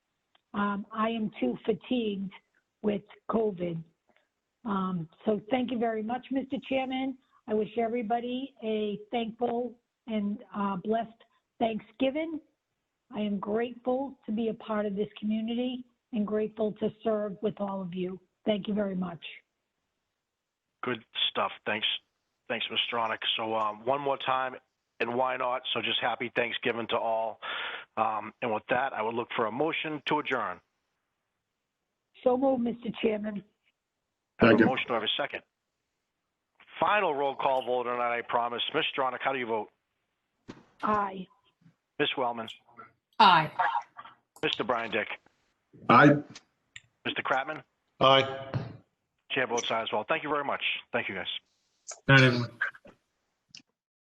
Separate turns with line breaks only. Um, I am too fatigued with COVID. Um, so thank you very much, Mr. Chairman. I wish everybody a thankful and uh, blessed Thanksgiving. I am grateful to be a part of this community and grateful to serve with all of you. Thank you very much.
Good stuff. Thanks, thanks, Ms. Stronach. So um, one more time, and why not? So just happy Thanksgiving to all. Um, and with that, I would look for a motion to adjourn.
So moved, Mr. Chairman.
I have a
Second.
motion. Do I have a second? Final roll call vote tonight. I promise. Ms. Stronach, how do you vote?
Aye.
Ms. Wellman,
Aye.
Mr. Brian Dick,
Aye.
Mr. Kratman,
Aye.
chair votes aye as well. Thank you very much. Thank you, guys.
Night, everyone.